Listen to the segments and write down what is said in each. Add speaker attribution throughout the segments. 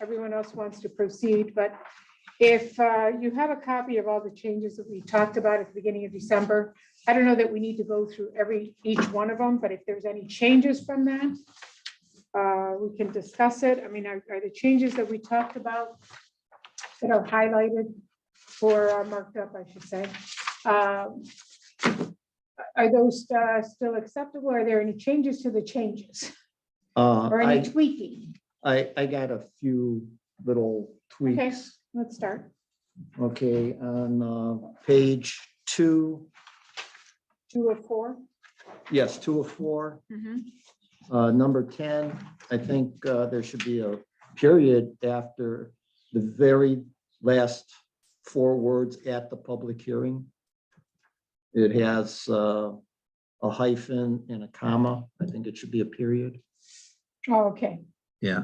Speaker 1: everyone else wants to proceed, but if uh, you have a copy of all the changes that we talked about at the beginning of December, I don't know that we need to go through every, each one of them, but if there's any changes from that, uh, we can discuss it. I mean, are are the changes that we talked about that are highlighted or are marked up, I should say, um, are those uh, still acceptable? Are there any changes to the changes
Speaker 2: Uh,
Speaker 1: or any
Speaker 2: I,
Speaker 1: tweaking?
Speaker 2: I, I got a few little tweaks.
Speaker 1: Let's start.
Speaker 2: Okay, on uh, page two,
Speaker 1: Two of 4
Speaker 2: yes, two of four, uh, number ten, I think uh, there should be a period after the very last four words at the public hearing. It has uh, a hyphen and a comma. I think it should be a period.
Speaker 1: Oh, okay.
Speaker 3: Yeah,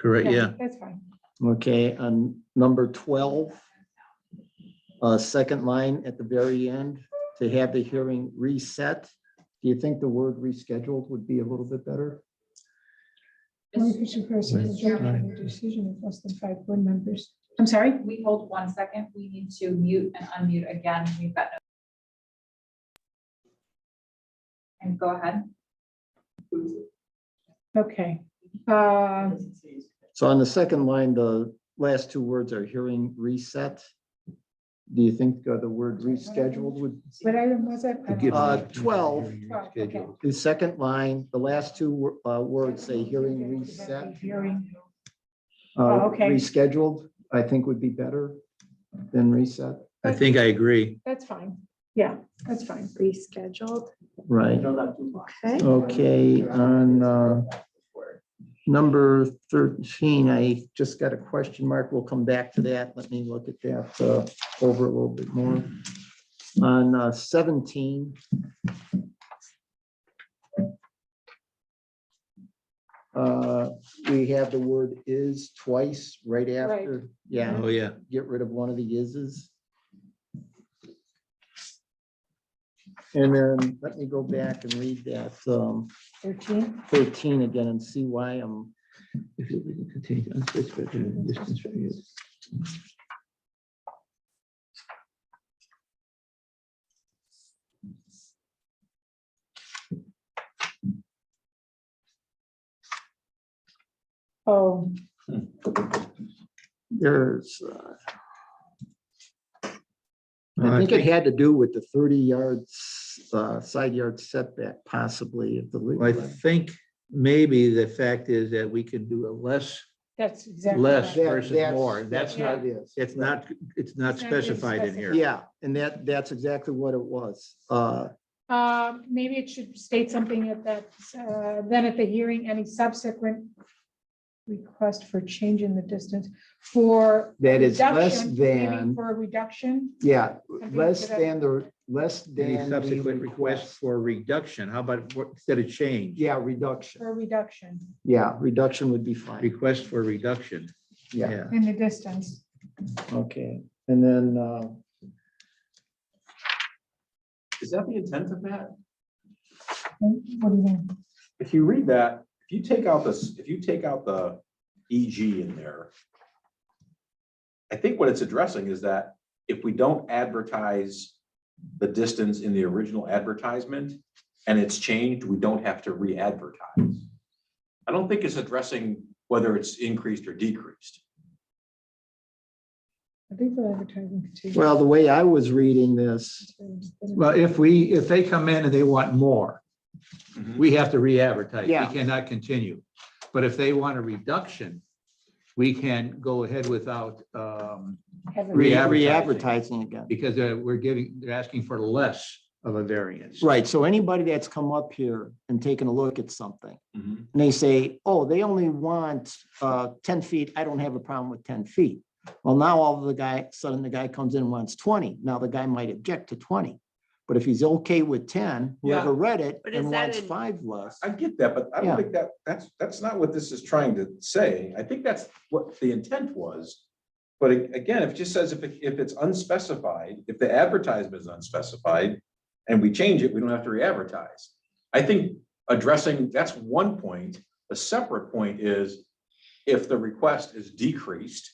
Speaker 3: correct, yeah.
Speaker 1: That's fine.
Speaker 2: Okay, on number twelve, uh, second line at the very end, to have the hearing reset. Do you think the word rescheduled would be a little bit better?
Speaker 1: Communication person
Speaker 4: is making
Speaker 1: decision of less than five board members. I'm sorry?
Speaker 4: We hold one second. We need to mute and unmute again. We've got. no- And go ahead.
Speaker 1: Okay. Uh,
Speaker 2: So on the second line, the last two words are hearing reset. Do you think uh, the word rescheduled would,
Speaker 1: What item was it?
Speaker 3: Forgive me.
Speaker 2: Uh, 12.
Speaker 1: Twelve, okay.
Speaker 3: Schedule.
Speaker 2: the second line, the last two wo- uh, words say hearing reset.
Speaker 1: Hearing.
Speaker 2: uh,
Speaker 1: okay.
Speaker 2: Rescheduled, I think would be better than reset,
Speaker 3: I think I agree.
Speaker 1: That's fine. Yeah, that's fine.
Speaker 5: rescheduled.
Speaker 2: right?
Speaker 5: Okay.
Speaker 2: Okay, on uh, number 13, I just got a question mark. We'll come back to that. Let me look at that uh, over a little bit more. On uh, 17. uh, We have the word is twice right after. Yeah,
Speaker 3: Oh, yeah.
Speaker 2: get rid of one of the ises. And then let me go back and read that. um,
Speaker 1: Thirteen.
Speaker 2: 13 again and see why I'm,
Speaker 1: Oh,
Speaker 2: there's. uh,
Speaker 3: Uh,
Speaker 2: I
Speaker 3: I
Speaker 2: think it
Speaker 3: think-
Speaker 2: had to do with the 30 yards, uh, side yard setback possibly of the.
Speaker 3: Well,
Speaker 2: legal
Speaker 3: I
Speaker 2: limit.
Speaker 3: think maybe the fact is that we can do a less,
Speaker 1: that's exactly.
Speaker 3: Less.
Speaker 1: right.
Speaker 2: That-
Speaker 3: versus more. That's
Speaker 2: what it is.
Speaker 3: it's not, it's not
Speaker 1: It's not being
Speaker 3: specified in here.
Speaker 2: Yeah, and that, that's exactly what it was. Uh,
Speaker 1: Uh, Maybe it should state something at that, uh, then at the hearing, any subsequent request for change in the distance for.
Speaker 2: That is less
Speaker 1: reduction, maybe
Speaker 2: than,
Speaker 1: For a reduction.
Speaker 2: yeah,
Speaker 1: something
Speaker 2: less
Speaker 1: to that-
Speaker 2: than the, less
Speaker 3: Any
Speaker 2: than. the
Speaker 3: subsequent request for reduction, how about what- instead of change?
Speaker 2: Yeah, reduction.
Speaker 1: For a reduction
Speaker 2: Yeah, reduction would be fine.
Speaker 3: Request for reduction,
Speaker 2: Yeah.
Speaker 3: yeah.
Speaker 1: in the distance.
Speaker 2: Okay, and then, uh,
Speaker 6: Is that the intent of that?
Speaker 1: What do you mean?
Speaker 6: If you read that, if you take out this, if you take out the EG in there, I think what it's addressing is that if we don't advertise the distance in the original advertisement and it's changed, we don't have to re-advertise. I don't think it's addressing whether it's increased or decreased.
Speaker 1: I think the advertising. continues.
Speaker 2: well, the way I was reading this,
Speaker 3: Well, if we, if they come in and they want more,
Speaker 6: Mhm.
Speaker 3: we have to re-advertise. We
Speaker 2: Yeah.
Speaker 3: cannot continue. But if they want a reduction, we can go ahead without, um,
Speaker 1: Heaven.
Speaker 3: Re-
Speaker 2: re-advertising again.
Speaker 3: because uh, we're giving, they're asking for less of a variance.
Speaker 2: Right, so anybody that's come up here and taken a look at something,
Speaker 6: Mhm.
Speaker 2: and they say, oh, they only want uh, ten feet, I don't have a problem with ten feet. Well, now all of the guy, sudden the guy comes in and wants twenty, now the guy might object to twenty. But if he's okay with ten, whoever read it
Speaker 5: But is
Speaker 2: and
Speaker 5: that
Speaker 2: wants
Speaker 5: in-
Speaker 2: five less,
Speaker 6: I get that, but I
Speaker 2: Yeah.
Speaker 6: don't think that, that's, that's not what this is trying to say. I think that's what the intent was. But a- again, if it just says if, it- if it's unspecified, if the advertisement is unspecified and we change it, we don't have to re-advertise. I think addressing, that's one point. A separate point is if the request is decreased,